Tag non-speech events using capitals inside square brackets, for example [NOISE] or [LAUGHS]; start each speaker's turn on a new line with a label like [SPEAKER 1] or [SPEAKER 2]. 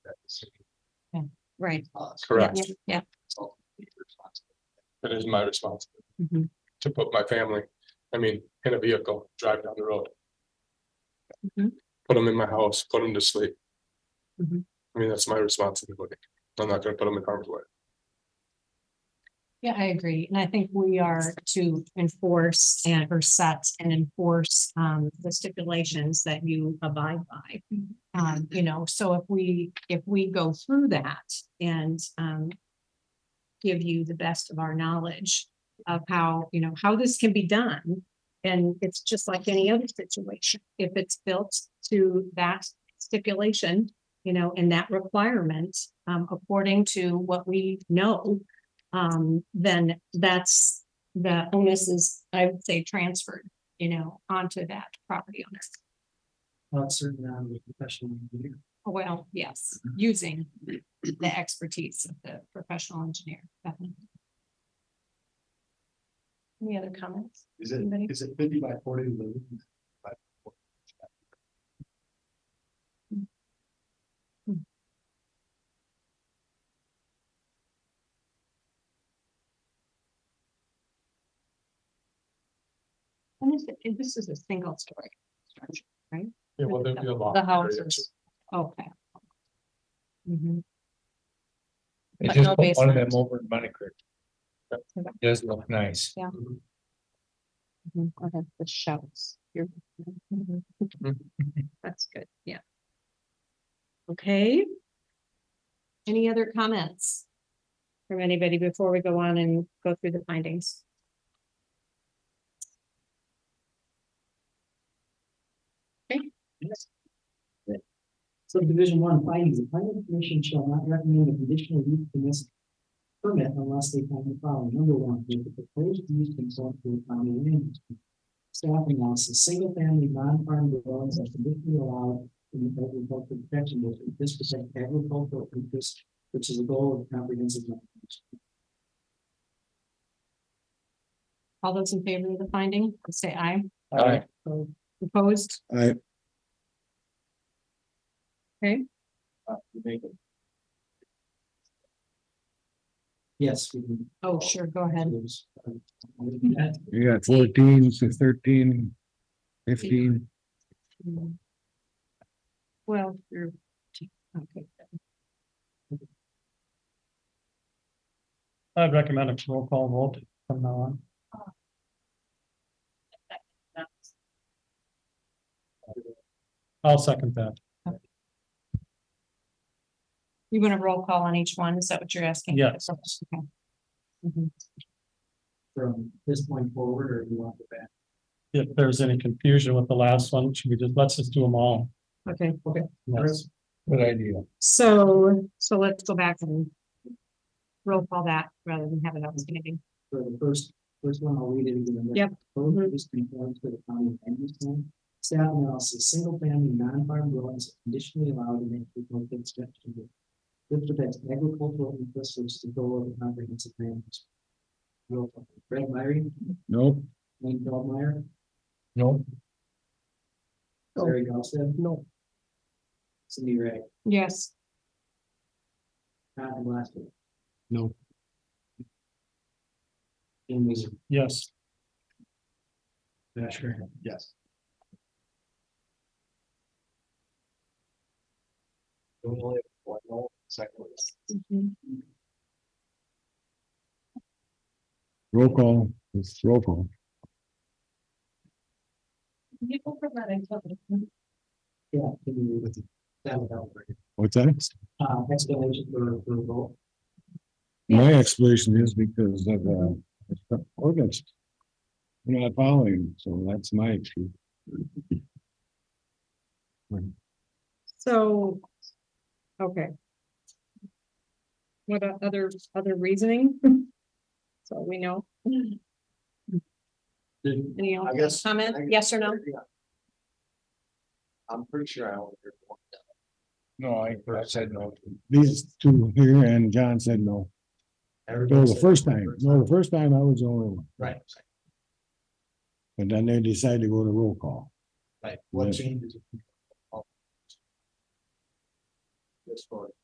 [SPEAKER 1] right.
[SPEAKER 2] us.
[SPEAKER 3] Correct.
[SPEAKER 1] Yeah, yeah.
[SPEAKER 3] It is my responsibility
[SPEAKER 1] Mhm.
[SPEAKER 3] to put my family, I mean, in a vehicle, drive down the road.
[SPEAKER 1] Mhm.
[SPEAKER 3] Put them in my house, put them to sleep.
[SPEAKER 1] Mhm.
[SPEAKER 3] I mean, that's my responsibility. I'm not gonna put them in harm's way.
[SPEAKER 1] Yeah, I agree. And I think we are to enforce and or set and enforce um the stipulations that you abide by. Um, you know, so if we, if we go through that and um. Give you the best of our knowledge of how, you know, how this can be done. And it's just like any other situation. If it's built to that stipulation, you know, and that requirement, um, according to what we know um, then that's, the onus is, I would say, transferred, you know, onto that property owner.
[SPEAKER 2] Not certain on the professional engineer.
[SPEAKER 1] Well, yes,
[SPEAKER 2] Mm-hmm.
[SPEAKER 1] using the expertise of the professional engineer. definitely. Any other comments?
[SPEAKER 2] Is it,
[SPEAKER 1] Anybody?
[SPEAKER 2] is it fifty by forty? Lou?
[SPEAKER 1] Hmm. And this, and this is a single story. structure.
[SPEAKER 3] Yeah, well, there'd be a lot.
[SPEAKER 1] The
[SPEAKER 3] of areas.
[SPEAKER 1] houses, okay. Mhm.
[SPEAKER 4] They
[SPEAKER 1] But
[SPEAKER 4] just
[SPEAKER 1] no
[SPEAKER 4] put one of them
[SPEAKER 1] basement.
[SPEAKER 4] over in Bunny Creek.
[SPEAKER 1] Okay.
[SPEAKER 4] It Does look nice.
[SPEAKER 3] Mm-hmm.
[SPEAKER 1] Mhm, Okay, the shelves. You're- mhm. That's good, yeah. Okay. Any other comments? From anybody before we go on and go through the findings?
[SPEAKER 2] Subdivision one findings, the planning commission shall not recommend a conditional use permit. Permit unless they find the following, number one, that the proposed use consult with county land. use plan. Staff analysis, single family non-farm dwellings are traditionally allowed in the agricultural protection district, this percent agricultural interest, which is a goal of the comprehensive. plan.
[SPEAKER 1] All those in favor of the finding, say aye.
[SPEAKER 4] All right.
[SPEAKER 1] Opposed?
[SPEAKER 2] Aye.
[SPEAKER 1] Okay.
[SPEAKER 2] Uh, you make it. Yes. we can.
[SPEAKER 1] Oh, sure, go ahead.
[SPEAKER 2] There's, uh, that-
[SPEAKER 5] You got fourteen to thirteen, fifteen,
[SPEAKER 1] Mm. Well, you're. Okay.
[SPEAKER 6] I'd recommend a roll call vote from now on. I'll second that.
[SPEAKER 1] You want a roll call on each one? Is that what you're asking?
[SPEAKER 6] Yes.
[SPEAKER 1] Okay. Mhm.
[SPEAKER 2] From this point forward, or you want to back?
[SPEAKER 6] If there's any confusion with the last one, should we just, let's just do them all.
[SPEAKER 1] Okay,
[SPEAKER 6] Yes.
[SPEAKER 4] Good idea.
[SPEAKER 1] so, so let's go back and roll call that rather than have it outstanding.
[SPEAKER 2] For the first, first one, I'll read it again.
[SPEAKER 1] Yep.
[SPEAKER 2] Both of these conform to the county land use plan. Staff analysis, single family non-farm dwellings are conditionally allowed in agricultural construction. This protects agricultural interests, which is the goal of the comprehensive plan. Roll call. Brad Myrie,
[SPEAKER 5] nope,
[SPEAKER 2] Wayne Feldmeyer,
[SPEAKER 4] No,
[SPEAKER 1] No.
[SPEAKER 2] Larry Gossett. No. Cindy Ray,
[SPEAKER 1] Yes.
[SPEAKER 2] Todd Glasgow.
[SPEAKER 5] No.
[SPEAKER 2] Jim Weezer.
[SPEAKER 6] Yes,
[SPEAKER 2] Asher. Yes.
[SPEAKER 5] roll call, it's roll call.
[SPEAKER 2] Yeah. can you read with it? That would help.
[SPEAKER 5] What's that?
[SPEAKER 2] Uh, explanation for approval.
[SPEAKER 5] My explanation is because of, uh, ordinance. We're not following, so that's my issue.
[SPEAKER 1] So, okay. What about other, other reasoning? [LAUGHS] So we know,
[SPEAKER 2] Did-
[SPEAKER 1] any
[SPEAKER 7] I
[SPEAKER 1] other
[SPEAKER 7] guess-
[SPEAKER 1] comment,
[SPEAKER 7] I
[SPEAKER 1] yes or no?
[SPEAKER 7] Yeah. I'm pretty sure I only heard one.
[SPEAKER 4] no, I I said no.
[SPEAKER 5] These two here and John said no. No,
[SPEAKER 2] Everybody
[SPEAKER 5] the
[SPEAKER 2] said-
[SPEAKER 5] first time, no, the first time I was the only one,
[SPEAKER 2] Right,
[SPEAKER 5] but then they decided to go to roll call.
[SPEAKER 2] right. What
[SPEAKER 5] Yes.
[SPEAKER 2] changes? This for